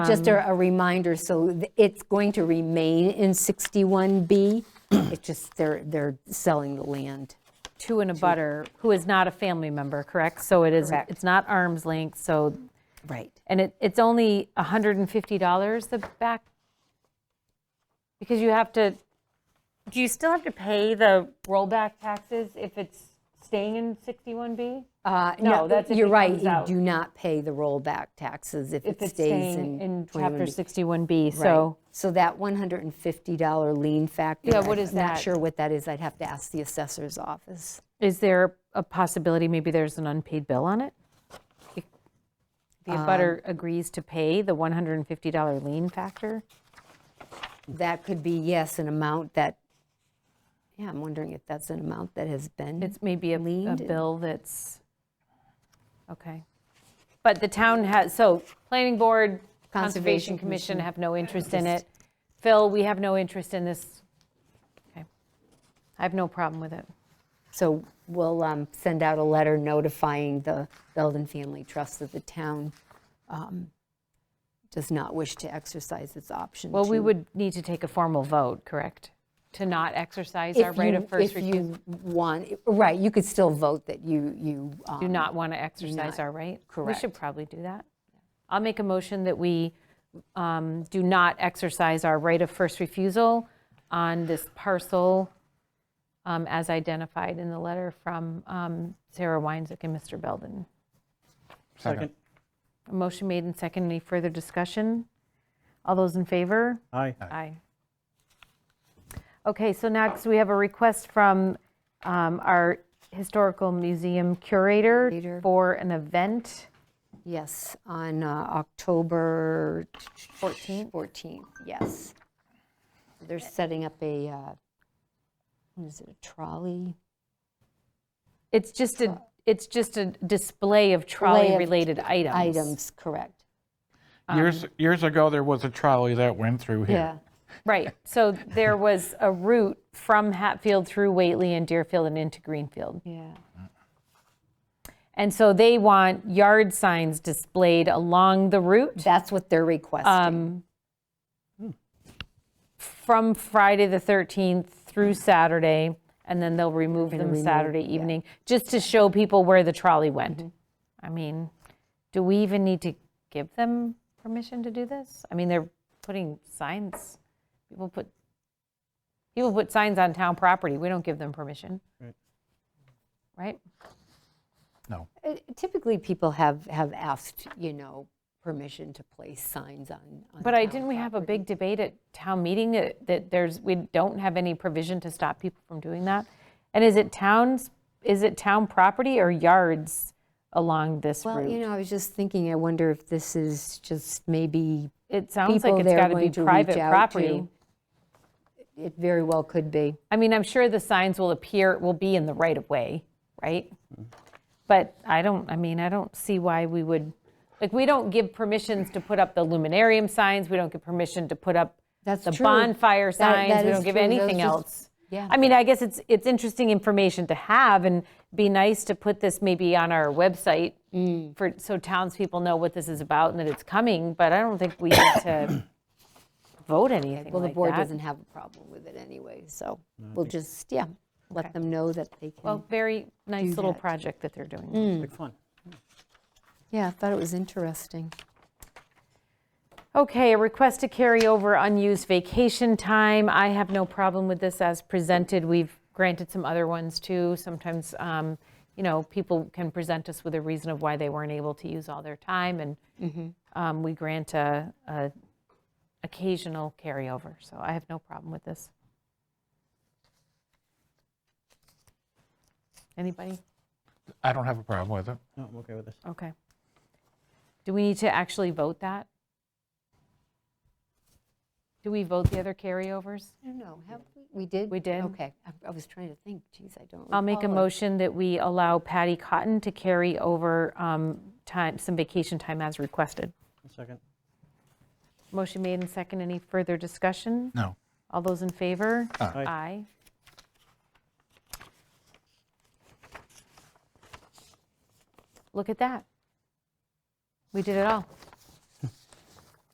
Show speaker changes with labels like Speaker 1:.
Speaker 1: Just a
Speaker 2: Um,
Speaker 1: a reminder, so th- it's going to remain in 61B. It's just they're, they're selling the land.
Speaker 2: to an abutter who is not a family member, correct? So it is, it's not arm's length, so,
Speaker 1: Right.
Speaker 2: and it, it's only $150 the back? Because you have to, do you still have to pay the rollback taxes if it's staying in 61B?
Speaker 1: Uh,
Speaker 2: No, that's if
Speaker 1: You're
Speaker 2: it
Speaker 1: right,
Speaker 2: comes
Speaker 1: you
Speaker 2: out.
Speaker 1: do not pay the rollback taxes if it
Speaker 2: If it's
Speaker 1: stays
Speaker 2: staying
Speaker 1: in.
Speaker 2: in Chapter
Speaker 1: 21B.
Speaker 2: 61B,
Speaker 1: Right.
Speaker 2: so.
Speaker 1: So that $150 lien factor.
Speaker 2: Yeah, what is
Speaker 1: I'm
Speaker 2: that?
Speaker 1: not sure what that is, I'd have to ask the assessor's office.
Speaker 2: Is there a possibility, maybe there's an unpaid bill on it? If The
Speaker 1: Um,
Speaker 2: abutter agrees to pay the $150 lien factor?
Speaker 1: That could be, yes, an amount that, yeah, I'm wondering if that's an amount that has been.
Speaker 2: It's maybe a, a
Speaker 1: Leaned and-
Speaker 2: bill that's, okay. But the town has, so, planning board, conservation
Speaker 1: Conservation
Speaker 2: commission have no interest in it. Phil, we have no interest in this. Okay, I have no problem with it.
Speaker 1: So we'll um, send out a letter notifying the Belden Family Trust that the town um, does not wish to exercise its option.
Speaker 2: Well, we
Speaker 1: to-
Speaker 2: would need to take a formal vote, correct? To not exercise
Speaker 1: if
Speaker 2: our right
Speaker 1: you-
Speaker 2: of first
Speaker 1: If
Speaker 2: refusal?
Speaker 1: you want, right, you could still vote that you, you.
Speaker 2: Do
Speaker 1: um,
Speaker 2: not want to exercise our right? We should
Speaker 1: correct.
Speaker 2: probably do that. I'll make a motion that we um, do not exercise our right of first refusal on this parcel um, as identified in the letter from um, Sarah Weinzick and Mr. Belden.
Speaker 3: Second.
Speaker 2: A motion made and second. Any further discussion? All those in favor?
Speaker 3: Aye.
Speaker 2: Aye. Okay, so next we have a request from um, our historical museum curator
Speaker 1: Curator.
Speaker 2: for an event.
Speaker 1: Yes, on uh, October
Speaker 2: 14th?
Speaker 1: 14th, yes. They're
Speaker 2: Eh.
Speaker 1: setting up a, uh, what is it, a trolley?
Speaker 2: It's just a, it's just a display of trolley-related items.
Speaker 1: Items, correct.
Speaker 3: Years, years ago, there was a trolley that went through here.
Speaker 1: Yeah.
Speaker 2: Right, so there was a route from Hatfield through Whately and Deerfield and into Greenfield.
Speaker 1: Yeah.
Speaker 2: And so they want yard signs displayed along the route
Speaker 1: That's what they're
Speaker 2: Um,
Speaker 1: requesting.
Speaker 2: from Friday the 13th through Saturday, and then they'll remove them Saturday evening, just to show people where the trolley went. I mean, do we even need to give them permission to do this? I mean, they're putting signs, people put, people put signs on town property, we don't give them permission. Right?
Speaker 3: No.
Speaker 1: Uh, Typically, people have, have asked, you know, permission to place signs on. on
Speaker 2: But I,
Speaker 1: town
Speaker 2: didn't we have a big debate at town meeting that that there's, we don't have any provision to stop people from doing that? And is it towns, is it town property or yards along this
Speaker 1: Well, you
Speaker 2: route?
Speaker 1: know, I was just thinking, I wonder if this is just maybe,
Speaker 2: It sounds like
Speaker 1: people
Speaker 2: it's
Speaker 1: they're
Speaker 2: got to be
Speaker 1: going to reach
Speaker 2: private
Speaker 1: out
Speaker 2: property.
Speaker 1: to. it very well could be.
Speaker 2: I mean, I'm sure the signs will appear, will be in the right of way, right? But I don't, I mean, I don't see why we would, like, we don't give permissions to put up the luminarium signs, we don't give permission to put up
Speaker 1: That's
Speaker 2: the
Speaker 1: true.
Speaker 2: bonfire
Speaker 1: That- that
Speaker 2: signs, we
Speaker 1: is
Speaker 2: don't give
Speaker 1: true. Those
Speaker 2: anything
Speaker 1: just-
Speaker 2: else.
Speaker 1: yeah.
Speaker 2: I mean, I guess it's, it's interesting information to have, and be nice to put this maybe on our website
Speaker 1: Mm.
Speaker 2: for, so townspeople know what this is about and that it's coming, but I don't think we need to vote anything like that.
Speaker 1: Well, the board doesn't have a problem with it anyway, so we'll just, yeah, let them know that they can.
Speaker 2: Well, very nice little
Speaker 1: that.
Speaker 2: project that they're doing.
Speaker 3: Big fun.
Speaker 1: Yeah, I thought it was interesting.
Speaker 2: Okay, a request to carry over unused vacation time. I have no problem with this as presented. We've granted some other ones too. Sometimes, um, you know, people can present us with a reason of why they weren't able to use all their time, and um, we grant a, a occasional carryover. So I have no problem with this. Anybody?
Speaker 3: I don't have a problem with it.
Speaker 4: No, I'm okay with this.
Speaker 2: Okay. Do we need to actually vote that? Do we vote the other carryovers?
Speaker 1: I don't know, have, we- we did?
Speaker 2: We did.
Speaker 1: Okay, I- I was trying to think, geez, I don't
Speaker 2: I'll make a
Speaker 1: recall if-
Speaker 2: motion that we allow Patty Cotton to carry over um, time, some vacation time as requested.
Speaker 4: One second.
Speaker 2: Motion made and second. Any further discussion?
Speaker 3: No.
Speaker 2: All those in favor?
Speaker 4: Aye.
Speaker 2: Aye. Look at that. We did it all.